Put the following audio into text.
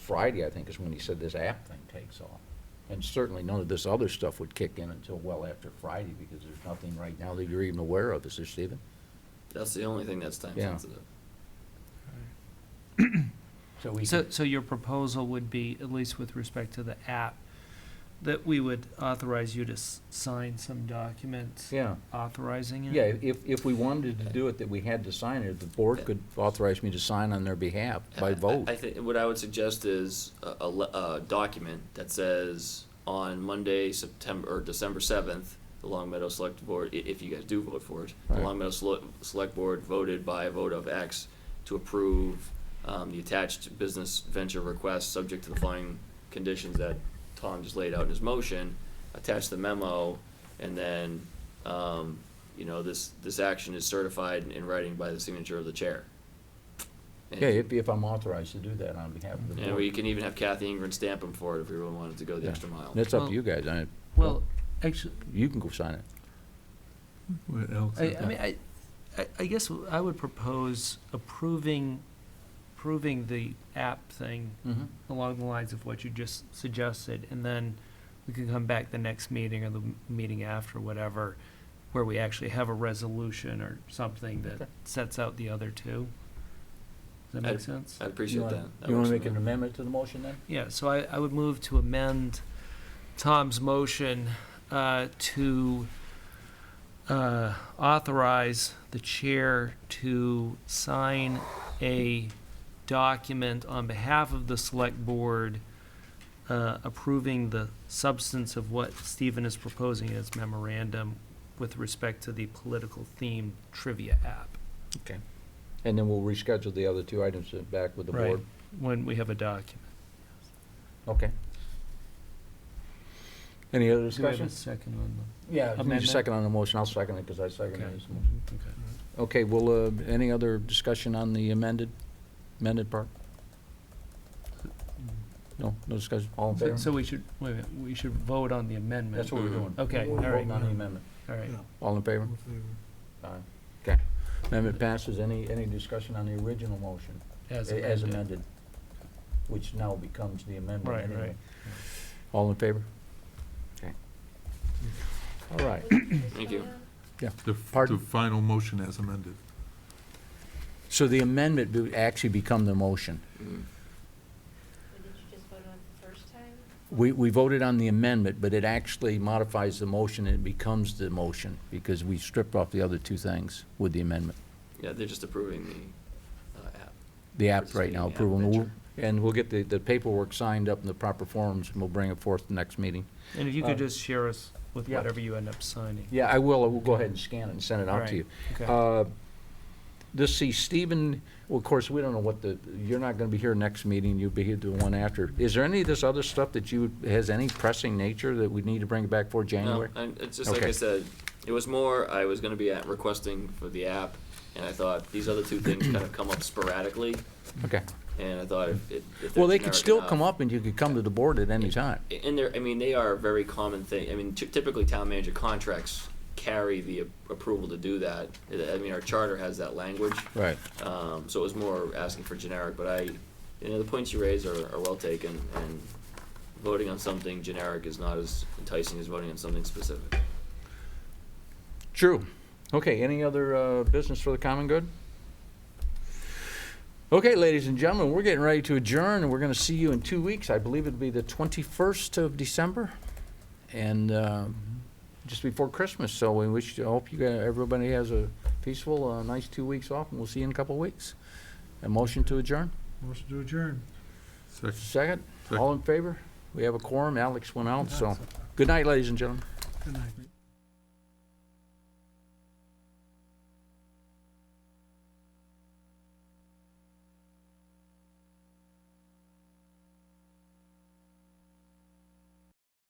Friday, I think, is when he said this app thing takes off. And certainly none of this other stuff would kick in until well after Friday, because there's nothing right now that you're even aware of, is there, Stephen? That's the only thing that's time Yeah. sensitive. So we So, could- so your proposal would be, at least with respect to the app, that we would authorize you to s- sign some documents yeah, authorizing it? yeah, if, if we wanted to do it, that we had to sign it, the board could authorize me to sign on their behalf by I- vote. I, I think what I would suggest is a, a, le- a document that says on Monday, September or December seventh, the Long Meadow Select Board, i- if you guys do vote for it, the Right. Long Meadow Sele- Select Board voted by a vote of X to approve um, the attached business venture request, subject to the following conditions that Tom just laid out in his motion. Attach the memo, and then um, you know this this action is certified in writing by the signature of the chair. And- Yeah, if, if I'm authorized to do that on behalf of the and we board. can even have Kathy Ingrid stamp them for it if we really wanted to go the Yeah. extra mile. That's up Well- to you guys, I, Well, actually, you can go sign it. What else? I, I mean, I, I- I guess I would propose approving, approving the app thing Mhm. along the lines of what you just suggested, and then we can come back the next meeting or the m- meeting after, whatever, where we actually have a resolution or something Okay. that sets out the other two. Does that I- make sense? I'd You appreciate that. wanna- That You wanna works for make me. an amendment to the motion then? Yeah, so I, I would move to amend Tom's motion uh, to uh, authorize the chair to sign a document on behalf of the select board uh, approving the substance of what Stephen is proposing as memorandum with respect to the political theme trivia app, And then we'll reschedule the other two items uh, back with the board. Right. when we have a document. Okay. Any other Do we have a discussion? second on Yeah. you amendment? Second on the motion, I'll second it because I seconded Okay. his motion. the, okay. Okay, well, uh, any other discussion on the amended, amended part? No, no discussion, all in So, favor? so we should, wait a minute, we should vote on the amendment. That's what we're doing. Okay, We're all right. voting on the amendment. All right. All in favor? Well, Aye. Okay. Amendment passes. Any, any discussion on the original motion a- as amended, which now becomes the amendment Right, anyway? right. All in favor? Okay. All right. Thank you. The, f- Pardon? the final motion as amended. So the amendment would actually become the motion. Mm. Did you just vote on it the first time? We, we voted on the amendment, but it actually modifies the motion, and it becomes the motion, because we stripped off the other two things with the amendment. Yeah, they're just approving the uh, app. The app right now, Participating app approval, and we'll- venture. and we'll get the, the paperwork signed up in the proper forms, and we'll bring it forth the next meeting. And if you Uh, could just share us with yeah. whatever you end up signing. Yeah, I will, I will go ahead and scan it and send it out to you. Okay. Uh, Let's see, Stephen, well, of course, we don't know what the, you're not going to be here next meeting, you'll be here the one after. Is there any of this other stuff that you, has any pressing nature that we need to bring it back for January? No, and it's just like Okay. I said, it was more I was gonna be at requesting for the app, and I thought these other two things kind of come up sporadically, Okay. and I thought if, if if they're Well, they could generic still enough- come up and you could come to the board at any time. And they're, I mean, they are a very common thing. I mean, ty- typically town manager contracts carry the a- approval to do that. I mean, our charter has that language. Right. Um, so it was more asking for generic, but I, you know, the points you raise are, are well taken, and voting on something generic is not as enticing as voting on something specific. True. Okay, any other uh, business for the common good? Okay, ladies and gentlemen, we're getting ready to adjourn, and we're going to see you in two weeks. I believe it'll be the 21st of December, and um, just before Christmas. So we wish, I hope you, guys- everybody has a peaceful, uh, nice two weeks off, and we'll see you in a couple of weeks. A motion to adjourn? Motion to adjourn. Second. Second? All in favor? We have a quorum. Alex went out, so. Good night, ladies and gentlemen. Good night.